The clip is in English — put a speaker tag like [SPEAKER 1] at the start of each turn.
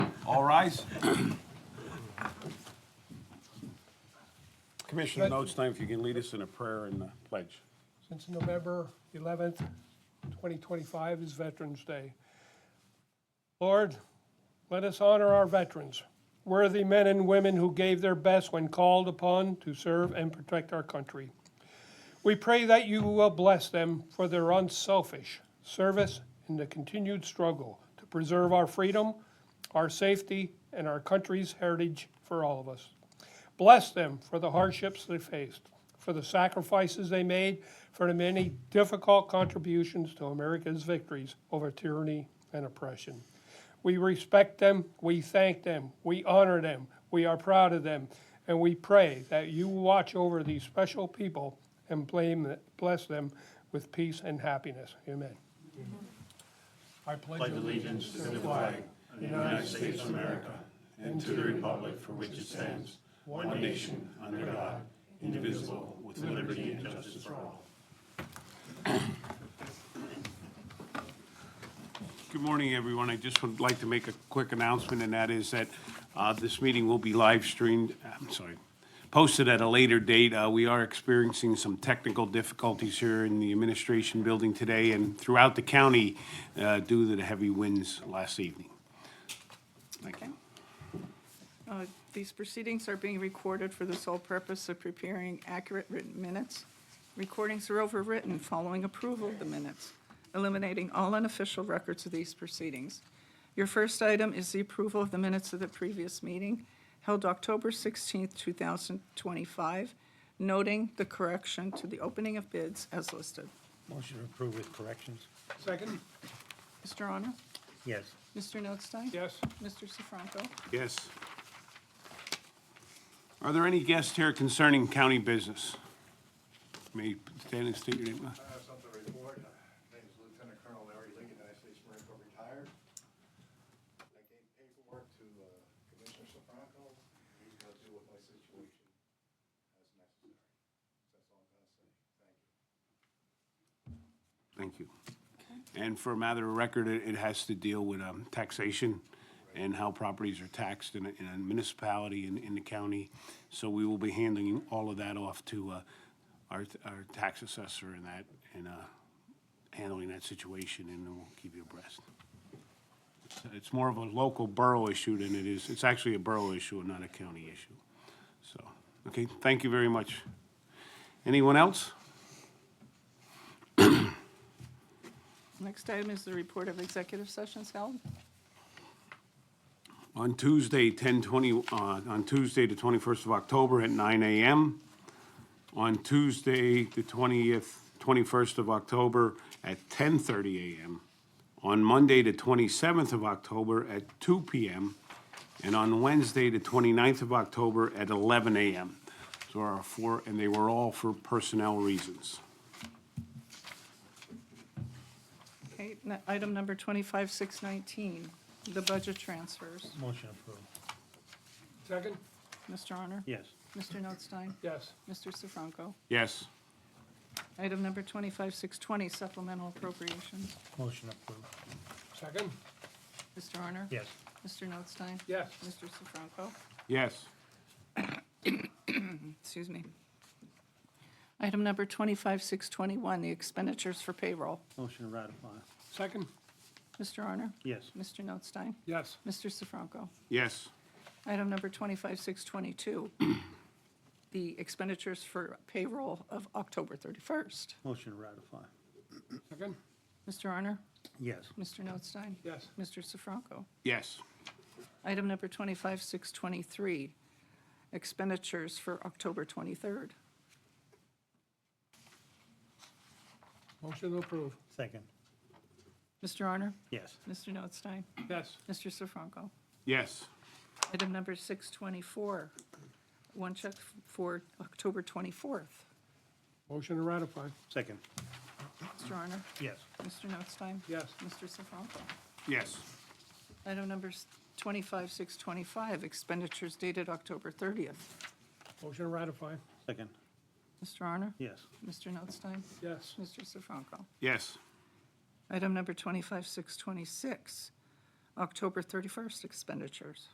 [SPEAKER 1] All rise.
[SPEAKER 2] Commissioner Notes time, if you can lead us in a prayer and a pledge.
[SPEAKER 3] since November 11th, 2025 is Veterans Day. Lord, let us honor our veterans, worthy men and women who gave their best when called upon to serve and protect our country. We pray that you will bless them for their unselfish service in the continued struggle to preserve our freedom, our safety, and our country's heritage for all of us. Bless them for the hardships they faced, for the sacrifices they made, for the many difficult contributions to America's victories over tyranny and oppression. We respect them, we thank them, we honor them, we are proud of them, and we pray that you watch over these special people and blame, bless them with peace and happiness. Amen.
[SPEAKER 1] I pledge
[SPEAKER 2] Good morning, everyone. I just would like to make a quick announcement, and that is that uh, this meeting will be live streamed, I'm sorry, posted at a later date. Uh, We are experiencing some technical difficulties here in the administration building today and throughout the county uh, due to the heavy winds last evening. Thank you.
[SPEAKER 4] Uh, These proceedings are being recorded for the sole purpose of preparing accurate written minutes. Recordings are overwritten following approval of the minutes, eliminating all unofficial records of these proceedings. Your first item is the approval of the minutes of the previous meeting held October 16, 2025, noting the correction to the opening of bids as listed.
[SPEAKER 5] Motion to approve with corrections?
[SPEAKER 3] Second?
[SPEAKER 4] Mr. Honor?
[SPEAKER 5] Yes.
[SPEAKER 4] Mr. Notstein?
[SPEAKER 3] Yes.
[SPEAKER 4] Mr. Sifranco?
[SPEAKER 2] Yes. Are there any guests here concerning county business? May you stand and state your name?
[SPEAKER 6] I have something to report. My name is Lieutenant Colonel Larry Lee, United States Marine Corps retired. I gave paperwork to uh, Commissioner Sofranco. He's going to deal with my situation as necessary. That's all I'm going to say. Thank you.
[SPEAKER 2] Thank you. And for a matter of record, it, it has to deal with, um, taxation and how properties are taxed in a, in a municipality in, in the county. So we will be handing all of that off to, uh, our, our tax assessor and that, and, uh, handling that situation, and then we'll keep you abreast. It's more of a local borough issue than it is, it's actually a borough issue and not a county issue. So, okay, thank you very much. Anyone else?
[SPEAKER 4] Next item is the report of executive sessions held.
[SPEAKER 2] On Tuesday, 10/20, uh, on Tuesday, the 21st of October at 9 AM. On Tuesday, the 20th, 21st of October at 10:30 AM. On Monday, the 27th of October at 2 PM. And on Wednesday, the 29th of October at 11 AM. So our four, and they were all for personnel reasons.
[SPEAKER 4] Okay, n- item number 25619, the budget transfers.
[SPEAKER 5] Motion approved.
[SPEAKER 3] Second?
[SPEAKER 4] Mr. Honor?
[SPEAKER 5] Yes.
[SPEAKER 4] Mr. Notstein?
[SPEAKER 3] Yes.
[SPEAKER 4] Mr. Sifranco?
[SPEAKER 2] Yes.
[SPEAKER 4] Item number 25620, supplemental appropriations.
[SPEAKER 5] Motion approved.
[SPEAKER 3] Second?
[SPEAKER 4] Mr. Honor?
[SPEAKER 5] Yes.
[SPEAKER 4] Mr. Notstein?
[SPEAKER 3] Yes.
[SPEAKER 4] Mr. Sifranco?
[SPEAKER 2] Yes.
[SPEAKER 4] Excuse me. Item number 25621, the expenditures for payroll.
[SPEAKER 5] Motion to ratify?
[SPEAKER 3] Second?
[SPEAKER 4] Mr. Honor?
[SPEAKER 5] Yes.
[SPEAKER 4] Mr. Notstein?
[SPEAKER 3] Yes.
[SPEAKER 4] Mr. Sifranco?
[SPEAKER 2] Yes.
[SPEAKER 4] Item number 25622, the expenditures for payroll of October 31st.
[SPEAKER 5] Motion to ratify?
[SPEAKER 3] Second?
[SPEAKER 4] Mr. Arner,
[SPEAKER 5] Yes.
[SPEAKER 4] Mr. Notstein?
[SPEAKER 3] Yes.
[SPEAKER 4] Mr. Sifranco?
[SPEAKER 2] Yes.
[SPEAKER 4] Item number 25623, expenditures for October 23rd.
[SPEAKER 3] Motion to approve.
[SPEAKER 5] Second?
[SPEAKER 4] Mr. Arner,
[SPEAKER 5] Yes.
[SPEAKER 4] Mr. Notstein?
[SPEAKER 3] Yes.
[SPEAKER 4] Mr. Sifranco?
[SPEAKER 2] Yes.
[SPEAKER 4] Item number 624, one check for October 24th.
[SPEAKER 3] Motion to ratify.
[SPEAKER 5] Second?
[SPEAKER 4] Mr. Arner,
[SPEAKER 5] Yes.
[SPEAKER 4] Mr. Notstein?
[SPEAKER 3] Yes.
[SPEAKER 4] Mr. Sifranco?
[SPEAKER 2] Yes.
[SPEAKER 4] Item number s- 25625, expenditures dated October 30th.
[SPEAKER 3] Motion to ratify.
[SPEAKER 5] Second?
[SPEAKER 4] Mr. Arner,
[SPEAKER 5] Yes.
[SPEAKER 4] Mr. Notstein?
[SPEAKER 3] Yes.
[SPEAKER 4] Mr. Sifranco?
[SPEAKER 2] Yes.
[SPEAKER 4] Item number 25626, October 31st expenditures.